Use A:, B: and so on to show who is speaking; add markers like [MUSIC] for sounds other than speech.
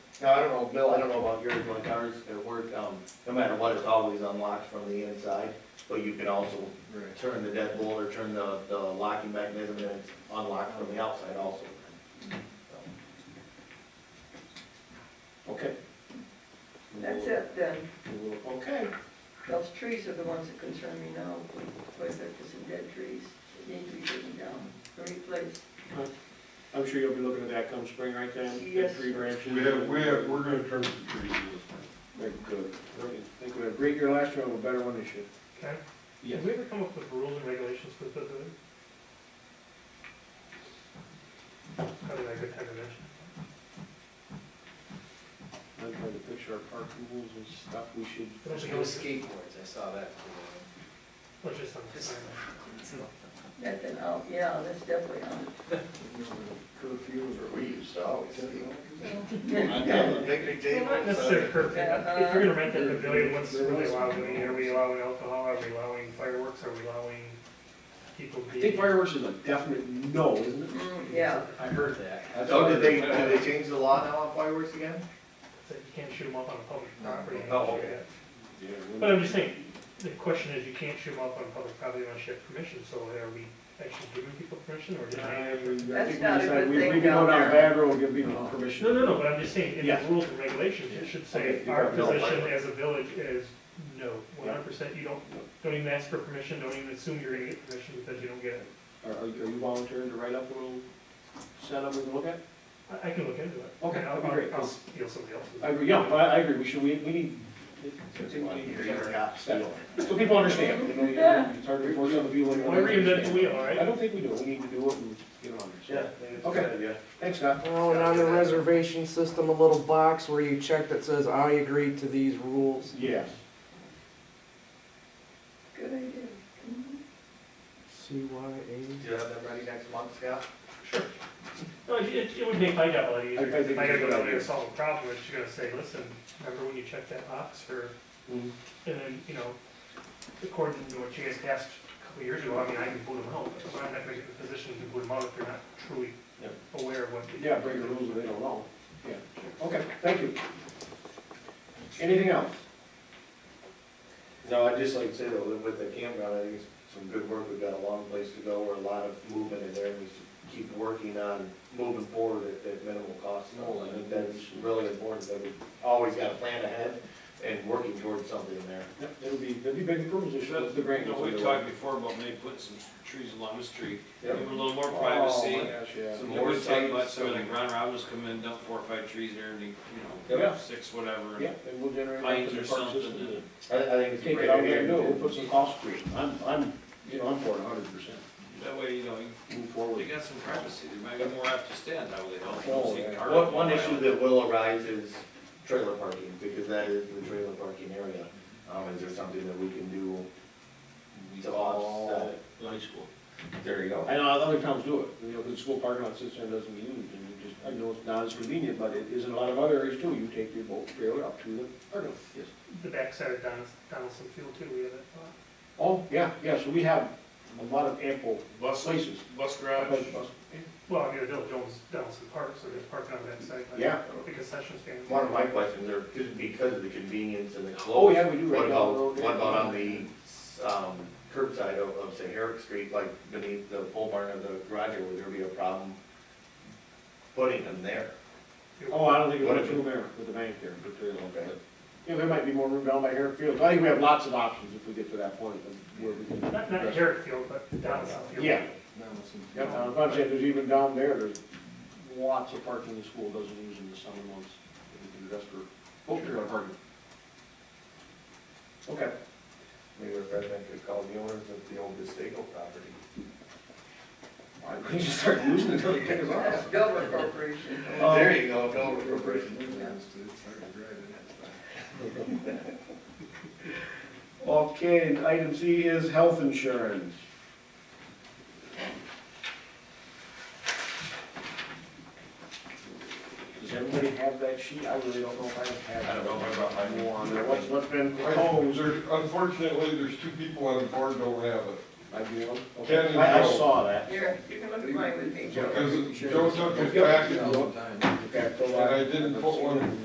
A: Now, I don't know, Bill, I don't know about yours, my cars at work, um, no matter what, it's always unlocked from the inside, but you can also
B: Right.
A: turn the deadbolt or turn the, the locking mechanism and it's unlocked from the outside also. Okay.
C: That's it then.
A: Okay.
C: Those trees are the ones that concern me now. Because there's some dead trees that need to be taken down or replaced.
D: I'm sure you'll be looking at that come spring, right, Dan? That
C: Yes.
D: Three branches.
B: We have, we have, we're gonna turn some trees in
D: Great, good. Great. Think we had a great year last year, we'll have a better one this year.
E: Can,
B: this
E: can we ever come up with rules and regulations for the visitor? Probably not a good time to mention.
D: I'm trying to picture our park rules and stuff we should.
E: There's
F: No skateboards, I saw that.
E: Or just on the sign.
C: That then, oh, yeah, that's definitely on.
A: Curfews or we used to always.
F: [LAUGHS]
C: Yeah.
A: Picnic
E: Well, not necessarily curfew, but if you're gonna rent that pavilion, what's
D: There- there
E: really
D: is-
E: allowed, I mean, are we allowing alcohol, are we allowing fireworks, are we allowing people
D: I think
E: being?
D: fireworks is a definite no, isn't it?
C: Mm, Yeah,
F: I heard that.
A: So did they, did they change the law now on fireworks again?
E: So you can't shoot them up on a public property.
A: Oh, okay.
B: Yeah,
E: But I'm just saying, the question is, you can't shoot them up on public property unless you have permission, so are we actually giving people permission, or just?
D: I think we
C: That's not a
D: decide
C: good
D: we-
C: thing
D: We can go
C: down
D: down
C: there.
D: a bad road, give people permission.
E: No, no, no, but I'm just saying, in the
D: Yeah.
E: rules and regulations, it should say,
D: Okay, you
E: our
D: have no
E: position
A: right.
E: as a village is, no, one hundred percent, you don't, don't even ask for permission, don't even assume you're gonna get permission because you don't get it.
D: Are, are you are you volunteering to write up a little setup we can look at?
E: I, I can look into it.
D: Okay,
E: I'll,
D: that'd be great,
E: I'll- I'll
D: 'cause-
E: steal somebody else's.
D: I agree, yeah, I, I agree, we should, we, we need. it's- it's- So people understand, you know, you know, it's hard to force other people. to
E: Why reinvent the
D: understand.
E: wheel, all
D: I
E: right?
D: don't think we do, we need to do it and get on there, so.
A: Okay. Yeah.
D: Thanks, Scott.
G: Well, and on the reservation system, a little box where you check that says, I agree to these rules.
D: Yeah.
C: good idea.
G: CYA.
A: Do you have that ready next month, Scott?
E: No, it, it it would make my job a lot easier,
D: I- I think
E: if I gotta
D: it's a
E: go
D: good
E: down there and
D: idea.
E: solve a problem, it's just gonna say, listen, remember when you checked that box for,
D: Mhm.
E: and then, you know, according to what you guys asked a couple years ago, I mean, I can boot them out, but I'm not gonna get in a position to boot them out if they're not truly
D: Yep.
E: aware of what. they-
D: Yeah, break the rules if they don't know. Yeah, okay, thank you. Anything else?
A: No, I'd just like to say though, that with the campground, I think it's some good work, we've got a long place to go, or a lot of movement in there, and we should keep working on moving forward at, at minimal cost. I think that's really important, that we always got a plan ahead and working towards something there.
D: Yep, It'll be, it'll be big improvements, it's just the grant.
F: You know, we talked before about maybe putting some trees along the street, give them a little more
D: Oh, my
F: privacy.
D: gosh, yeah.
F: Some
A: Yeah.
F: more
A: More
F: talk about,
A: shades,
F: so like
A: some-
F: Ron Robbins come in, dump four or five trees there, and they, you
D: Yeah.
F: know, six, whatever.
D: Yeah, and we'll generate. that
F: Pines
D: for the
F: or
D: park
F: something,
D: system.
F: and-
A: I, I think it's a
D: Take
A: great
D: it out there,
A: idea.
D: no, we'll put some cost screen, I'm, I'm, you know, I'm for it a hundred percent,
F: That way, you know, you-
D: move
F: they
D: forward.
F: got some privacy, they might be more apt to stand out, they don't,
D: Oh,
F: don't see
D: yeah.
F: cars.
A: One, one issue that will arise is trailer parking, because that is the trailer parking area. Um, is there something that we can do to offset it?
F: High school.
A: There you go.
D: I know other towns do it, you know, the school parking lot sits there and doesn't get used, and you just, I know it's not as convenient, but it is in a lot of other areas too, you take your boat trailer up to the parking lot. Yes.
E: The backside of Donaldson, Donaldson Field too, we have that thought.
D: Oh, yeah, yeah, so we have a lot of ample
F: Bus,
D: places.
F: bus
E: Well, I mean, Bill Jones, Donaldson Park, so there's parking on that side. like,
D: Yeah.
E: The concession stand.
A: One of my questions are, just because of the convenience and the
D: Oh,
A: close,
D: yeah, we do right
A: what
D: down
A: about,
D: the road. there.
A: what about on the, um, curbside of, of, say, Herrick Street, like beneath the pole barn or the garage, or would there be a problem putting them there?
D: Oh, I don't think
A: What
D: it's
A: if
D: too there with the bank there, but, there-
A: Okay.
D: but, you know, there might be more room down by Herrick Field, I think we have lots of options if we get to that point, of where we can.
E: Not, not Herrick Field, but Donaldson Field.
D: Yeah, yeah, I'm not saying there's even down there, there's lots of parking the school doesn't use in the summer months. that We can address for, oh, trailer parking. Okay,
A: Maybe if I think could call the owners of the old Destaco property.
D: why don't we just start using it until they kick us
C: That's
D: off?
C: Dover Corporation.
D: Oh.
A: There you go, no appropriation.
D: Okay, and item C is health insurance. Does everybody have that sheet? I really don't know if I have.
A: I don't know if I brought mine.
D: One, what's, what's been
B: Oh,
D: proposed?
B: there's, unfortunately, there's two people on the board don't have it,
D: I do,
B: Ken
D: okay,
B: and
D: I I
B: Joe.
D: saw that.
C: Here, you can look at mine with me, Joe.
B: because Joe took his packet, and
D: Okay, so
B: I didn't put one